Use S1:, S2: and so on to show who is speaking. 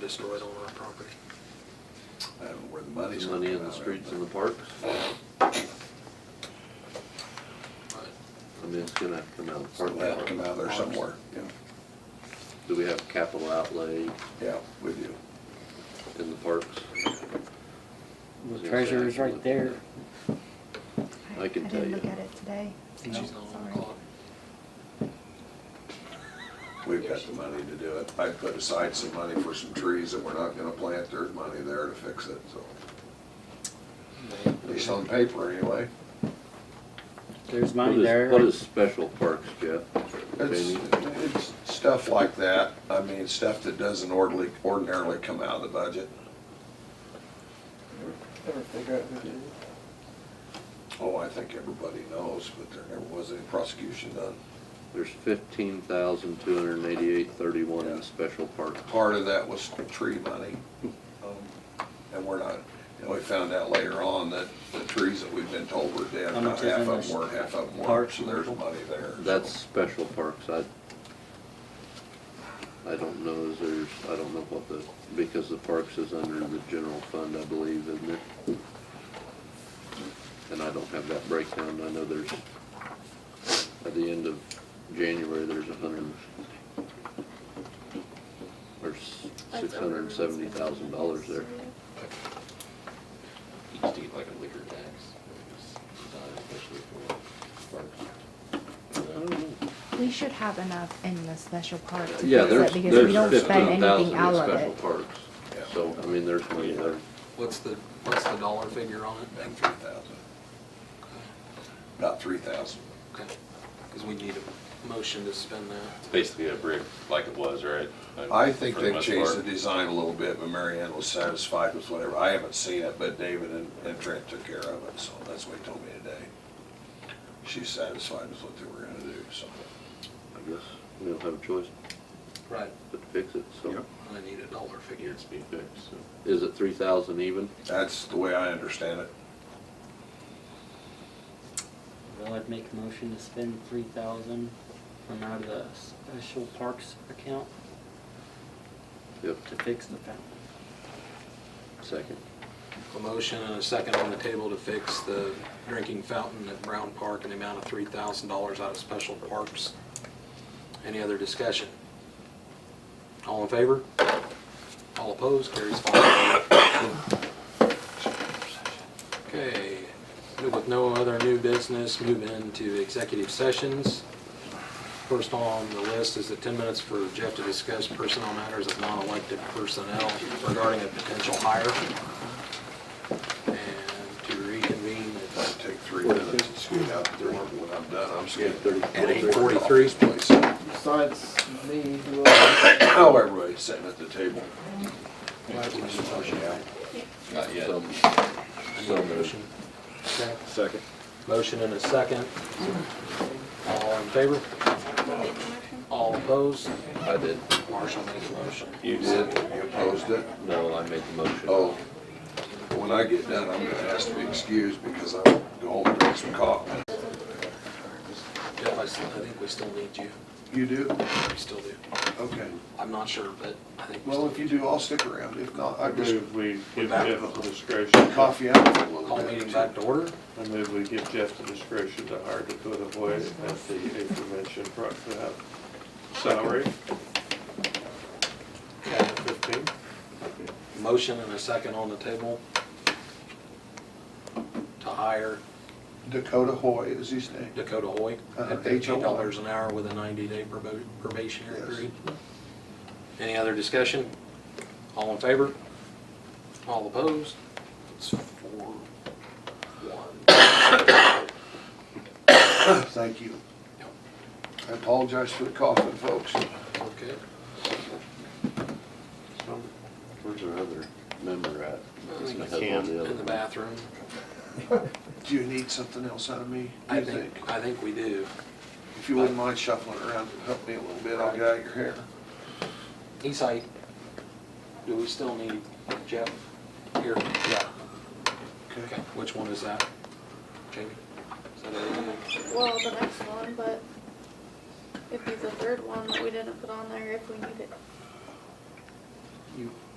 S1: destroyed on our property.
S2: I don't know where the money's gonna
S3: Money
S2: come
S3: in the
S2: out of,
S3: streets
S2: but-
S3: and the parks,
S1: But
S3: I mean, it's gonna have to come out of the
S2: Or
S3: park.
S2: let it come out of there somewhere, yeah,
S3: Do we have capital outlay
S2: yeah, we do.
S3: in the parks?
S4: The treasurer's right there.
S3: I can tell
S5: didn't
S3: you.
S5: look at it today.
S1: She's not on the clock.
S2: We've got the money to do it. I put aside some money for some trees that we're not gonna plant, there's money there to fix it, so, at least on paper anyway.
S4: There's
S3: What
S4: money
S3: is, what
S4: there.
S3: is special parks, Jeff?
S2: It's,
S3: Jamie?
S2: it's stuff like that, I mean, stuff that doesn't ordinarily, ordinarily come out of the budget. Oh, I think everybody knows, but there never was any prosecution done.
S3: There's fifteen thousand, two hundred and eighty-eight, thirty-one
S2: Yeah.
S3: in special parks.
S2: Part of that was tree money. um, And we're not, and we found out later on that the trees that we've been told were dead,
S4: How
S2: about
S4: much is
S2: half
S4: in
S2: of
S4: this
S2: them were, half of them weren't,
S4: park?
S2: so there's money there. so.
S3: That's special parks, I, I don't know, is there's, I don't know what the, because the parks is under the general fund, I believe, isn't it? And I don't have that breakdown, I know there's, at the end of January, there's a hundred, there's six hundred and seventy thousand dollars there.
S6: You just need like a liquor tax, it's designed especially for parks.
S5: We should have enough in the special part to
S3: Yeah,
S5: fix it
S3: there's,
S5: because
S3: there's
S5: we don't
S3: fifteen
S5: spend anything
S3: thousand
S5: out
S3: in
S5: of
S3: special
S5: it.
S3: parks,
S2: Yeah.
S3: so, I mean, there's money there.
S1: What's the, what's the dollar figure on it?
S2: About three thousand, about three thousand.
S1: Okay, because we need a motion to spend that.
S6: It's basically a brick like it was, right?
S2: I think they've changed the
S6: it.
S2: design a little bit, but Mary Ann was satisfied with whatever. I haven't seen it, but David and and Trent took care of it, so that's what he told me today. She's satisfied with what they were gonna do, so.
S3: I guess we don't have a choice
S1: Right.
S3: but to fix it, so.
S2: Yep.
S1: I need a dollar figure.
S6: It's being fixed, so.
S3: Is it three thousand even?
S2: That's the way I understand it.
S4: Well, I'd make a motion to spend three thousand from out of the special parks account
S3: Yep,
S4: to fix the fountain.
S3: second.
S1: A motion and a second on the table to fix the drinking fountain at Brown Park in the amount of three thousand dollars out of special parks. Any other discussion? All in favor? All opposed? Carries five. Okay, with no other new business, move into executive sessions. First on the list is the 10 minutes for Jeff to discuss personnel matters of non-elected personnel regarding a potential hire. And to reconvene
S2: I
S1: at
S2: take three minutes to scoot out the door, and when I'm done, I'm scooting.
S1: at 8:43.
S2: Place.
S7: Besides me, who else?
S2: How everybody's sitting at the table.
S6: Not yet.
S1: I need a motion. Okay.
S3: Second.
S1: Motion and a second. All in favor? All opposed?
S3: I did.
S1: Marshall made the motion.
S2: You did, you opposed it?
S3: No, I made the motion.
S2: Oh, when I get done, I'm gonna ask to be excused because I'm going to home and drink some coffee.
S1: Jeff, I still- I think we still need you.
S2: You do?
S1: We still do.
S2: Okay.
S1: I'm not sure, but I think we
S2: Well,
S1: still
S2: if you do, I'll stick around. If not, I
S8: I
S2: just
S8: move we
S2: We're
S8: give
S2: back.
S8: Jeff the discretion,
S2: coffee out for a little
S1: call
S2: bit.
S1: meeting back to order.
S8: I move we give Jeff the discretion to hire Dakota Boyd at the aforementioned pro- uh, salary,
S1: Okay.
S8: fifteen.
S1: Motion and a second on the table to hire
S2: Dakota Hoy is his name.
S1: Dakota Hoy
S2: Uh-huh,
S1: at fifteen dollars an hour with a ninety-day probationary
S2: Yes.
S1: period. Any other discussion? All in favor? All opposed? It's four, one.
S2: Thank you. I apologize for the coughing, folks.
S1: Okay.
S3: Where's our other member
S1: I
S3: at?
S1: think
S3: Has
S1: it's
S3: one of the other
S1: In the
S3: ones.
S1: bathroom.
S2: Do you need something else out of me? Do
S1: I
S2: you
S1: think, I think we do.
S2: If you wouldn't mind shuffling around and help me a little bit, I'll get out of your hair.
S1: Eastside, do we still need Jeff here? Yeah. Okay, which one is that? Jamie? Is that it?
S9: Well, the next one, but it'd be the third one that we didn't put on there if we need it.
S1: You